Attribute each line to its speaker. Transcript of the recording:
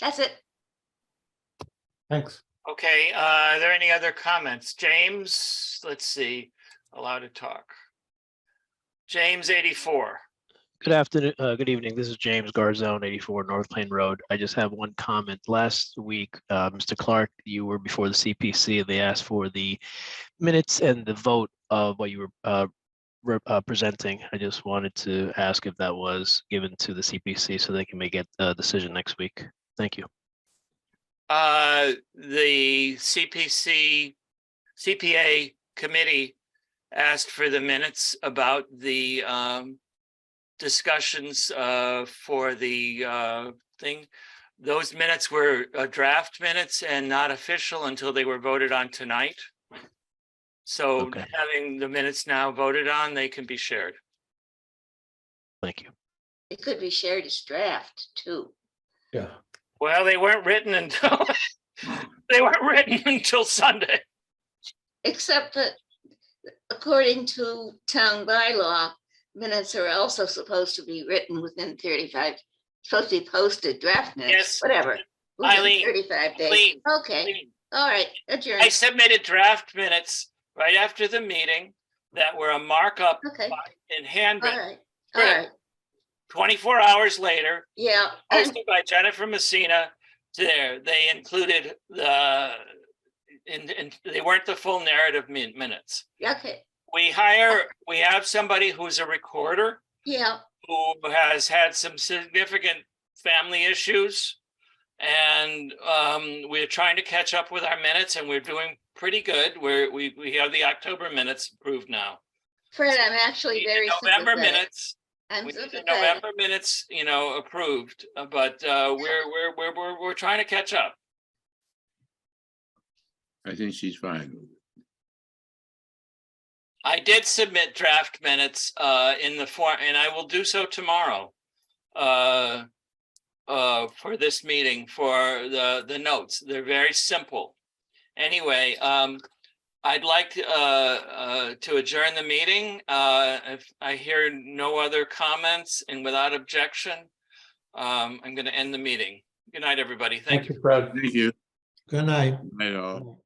Speaker 1: That's it.
Speaker 2: Thanks.
Speaker 3: Okay, uh, are there any other comments? James, let's see, allowed to talk. James eighty-four.
Speaker 4: Good afternoon, uh, good evening. This is James Garzone, eighty-four North Plain Road. I just have one comment. Last week, uh, Mr. Clark, you were before the CPC and they asked for the minutes and the vote of what you were, uh, re- uh, presenting. I just wanted to ask if that was given to the CPC so they can make a, a decision next week. Thank you.
Speaker 3: Uh, the CPC, CPA committee asked for the minutes about the, um, discussions, uh, for the, uh, thing. Those minutes were uh, draft minutes and not official until they were voted on tonight. So
Speaker 4: Okay.
Speaker 3: having the minutes now voted on, they can be shared.
Speaker 4: Thank you.
Speaker 1: It could be shared as draft too.
Speaker 2: Yeah.
Speaker 3: Well, they weren't written until, they weren't written until Sunday.
Speaker 1: Except that according to town bylaw, minutes are also supposed to be written within thirty-five, supposed to be posted draft minutes,
Speaker 3: Yes.
Speaker 1: whatever. within
Speaker 3: Eileen,
Speaker 1: Thirty-five days.
Speaker 3: Eileen,
Speaker 1: Okay, all right, adjourned.
Speaker 3: I submitted draft minutes right after the meeting that were a markup
Speaker 1: Okay,
Speaker 3: in
Speaker 1: all
Speaker 3: handwritten.
Speaker 1: right, all
Speaker 3: Great.
Speaker 1: right,
Speaker 3: Twenty-four hours later,
Speaker 1: yeah. and-
Speaker 3: hosted by Jennifer Messina, there, they included the, in, in, they weren't the full narrative min- minutes.
Speaker 1: Okay,
Speaker 3: We hire, we have somebody who's a recorder
Speaker 1: yeah,
Speaker 3: who has had some significant family issues. And um, we're trying to catch up with our minutes and we're doing pretty good. We're, we, we have the October minutes approved now.
Speaker 1: Fred, I'm actually
Speaker 3: We
Speaker 1: very
Speaker 3: did November
Speaker 1: sympathetic.
Speaker 3: minutes,
Speaker 1: I'm
Speaker 3: we did the
Speaker 1: sympathetic.
Speaker 3: November minutes, you know, approved, uh, but uh, we're, we're, we're, we're, we're trying to catch up.
Speaker 5: I think she's fine. with it.
Speaker 3: I did submit draft minutes uh in the form, and I will do so tomorrow. Uh, uh, for this meeting, for the the notes, they're very simple. Anyway, um, I'd like uh uh to adjourn the meeting. Uh, if I hear no other comments and without objection. Um, I'm gonna end the meeting. Good night, everybody. Thank you.
Speaker 2: Thank you, Fred.
Speaker 5: Thank you.
Speaker 2: Good night.
Speaker 5: Night all.